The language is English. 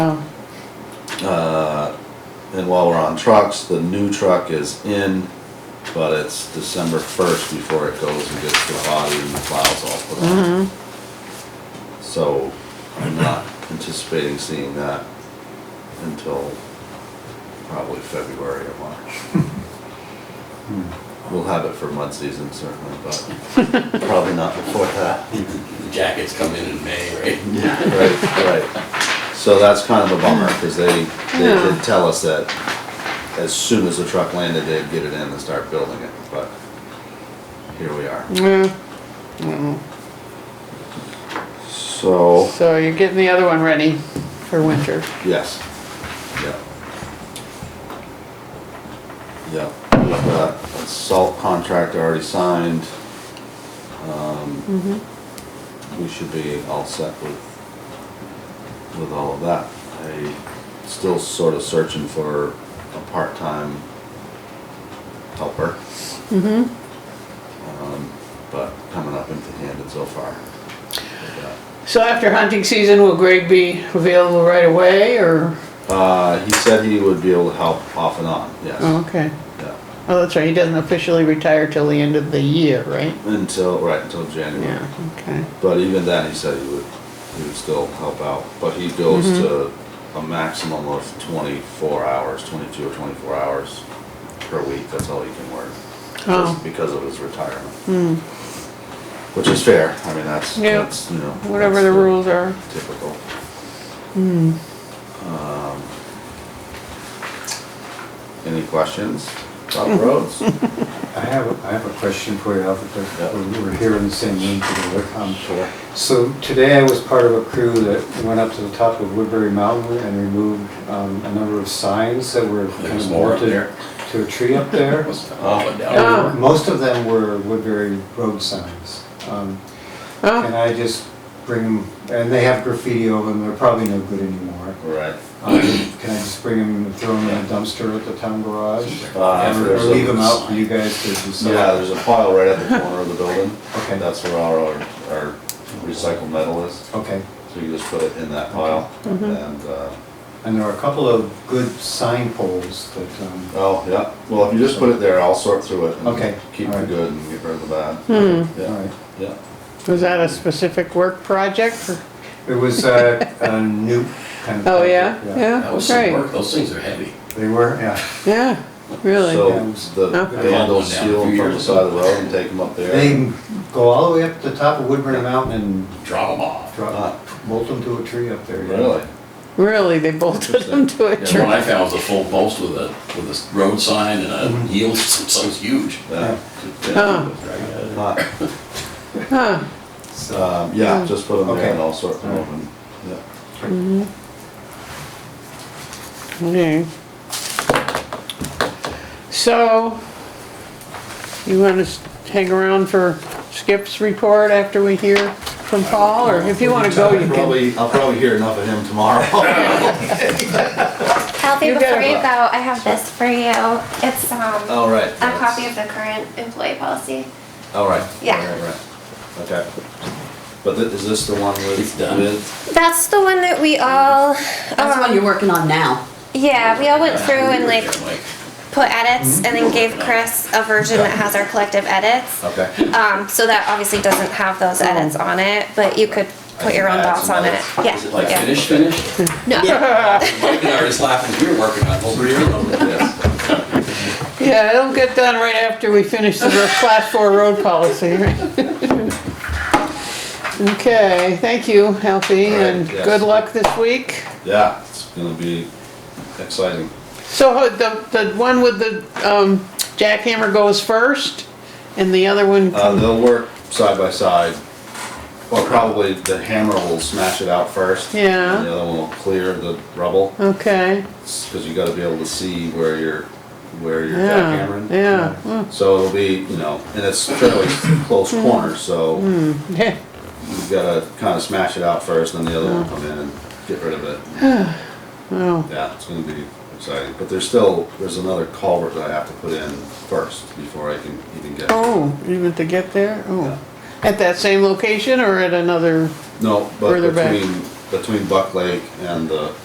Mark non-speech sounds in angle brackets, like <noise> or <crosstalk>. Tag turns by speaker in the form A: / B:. A: Uh, And while we're on trucks, the new truck is in, but it's December first before it goes and gets the body and the plows all put
B: Mm-hmm.
A: on. So I'm not anticipating seeing that until probably February or March. We'll have it for mud season certainly, but probably not before that.
C: The jackets come in in May, right? <laughs>
A: Right, right. So that's kind of a bummer, because they, they did tell us that as soon as the truck landed, they'd get it in and start building it, but here we are.
B: Yeah,
A: So,
B: so you're getting the other one ready for winter.
A: yes, yeah. Yeah, we've got a salt contract already signed. Um, We should be all set with, with all of that. I still sort of searching for a part-time helper. Um, But coming up into Hampton so far. With that.
B: So after hunting season, will Greg be available right away or?
A: Uh, he said he would be able to help off and on,
B: Oh,
A: yes.
B: okay.
A: Yeah.
B: Oh, that's right, he doesn't officially retire till the end of the year, right?
A: Until, right, until January.
B: Yeah, okay.
A: But even then, he said he would, he would still help out. But he goes
B: Mm-hmm.
A: to a maximum of twenty-four hours, twenty-two or twenty-four hours per week. That's all he can work. just
B: Oh. Mm.
A: Because of his retirement. Which is fair. I mean, that's,
B: Yeah.
A: that's, you know.
B: Whatever
A: that's
B: the Mm. rules are.
A: Typical. Um, Any questions about
B: Mm-hmm.
A: roads?
B: <laughs>
D: I have, a- I have a question for you, Alfred, but we were here in the same room for the WICOM.
A: Sure.
D: So today I was part of a crew that went up to the top of Woodbury Mountain and removed um, a number of signs that were kind
C: There's
D: of
C: more up there.
D: bolted to a tree
C: <laughs>
D: up there.
C: Must have fallen down.
B: Oh.
D: And Most of them were Woodbury road signs. Um, And
B: Oh,
D: I just bring, 'em- and they have graffiti over them, they're probably no good anymore.
A: Right.
D: Um, Can I just bring them and throw them in a dumpster at the town garage?
A: Uh,
D: Or or
A: there's a-
D: leave them out for you guys to decide?
A: Yeah, there's a pile right at
D: <laughs>
A: the corner of the building.
D: Okay.
A: That's where our, our our recycled metal is,
D: Okay,
A: so you just put it in that pile.
D: Mm-hmm.
A: And, uh,
D: and there are a couple of good sign poles that, um,
A: oh, yeah, well, if you just put it there, I'll sort through it. and
D: Okay,
A: Keep the
D: alright.
A: good and get rid of the bad.
D: all
A: Yeah,
D: right.
A: yeah.
B: was that a specific work project? or-
D: It was uh, a new kind of.
B: Oh, yeah,
D: project,
C: That
B: yeah,
C: was some
B: right,
C: work, those things are heavy.
D: They were, yeah.
B: yeah, really.
A: So the
B: Huh?
A: vandals
C: Yeah.
A: steal them from the side of the road and take them up there.
D: They go all the way up to the top of Woodburn Mountain and
C: Drop them off.
A: Ah.
D: drop, bolt them to a tree up there. yeah.
A: Really?
B: Really, they bolted them to a
C: And the one
B: tree.
C: I found was a full post with a, with a road sign and a <laughs> yield, something's huge.
A: Yeah.
B: Huh.
A: Huh.
B: Huh,
A: Um, yeah, just put them there and
D: Hmm. Okay.
A: I'll sort them open. Yeah.
B: okay. So, you wanna s- hang around for Skip's report after we hear from Paul, or if you wanna go, you can. <laughs>
A: Probably, I'll probably hear enough of him tomorrow.
E: Alfie,
B: You
E: before
B: gotta-
E: you go, I have this for you. It's um,
A: <laughs>
C: Oh,
A: All right.
E: a copy of the current employee policy.
A: All Oh, right.
E: Yeah.
A: Right, right. Okay. But thi- is this the one with?
C: It's done.
A: with-
E: That's the one that we all.
F: That's the one
E: um,
F: you're working on now.
E: Yeah, we all went through and like
C: Mike.
E: put edits and then gave Chris a version that has our collective edits.
A: Okay.
E: Um, so that obviously doesn't have those edits on it, but you could put your own
A: Add
E: thoughts
A: some
E: on it.
A: edits.
E: Yeah.
C: Is it like
E: yeah.
C: finished, finished?
E: No.
C: Mike and I were just laughing, 'cause we were working on over here.
A: Yes.
B: Yeah, it'll get done right after we finish the ro- class four road policy, <laughs> right? Okay, thank you, Alfie,
A: All right,
B: and
A: yes.
B: good luck this week.
A: Yeah, it's gonna be exciting.
B: So uh, the, the one with the um, jackhammer goes first and the other one
A: Uh,
B: comes,
A: they'll work side by side, or probably the hammer will smash it out first.
B: Yeah.
A: And the other one will clear the rubble,
B: okay.
A: because you gotta be able to see where you're, where you're
B: Yeah,
A: jackhammering.
B: yeah, mm,
A: So it'll be, you know, and it's fairly close corner, so
B: Mm-hmm. yeah,
A: you gotta kinda smash it out first, then the other one will come in and get rid of it.
B: <sighs> wow,
A: Yeah, it's gonna be exciting, but there's still, there's another culvert that I have to put in first before I can even get.
B: oh, even to get there, oh. At that same location or at another,
A: No, but
B: Further back.
A: between, between Buck Lake and the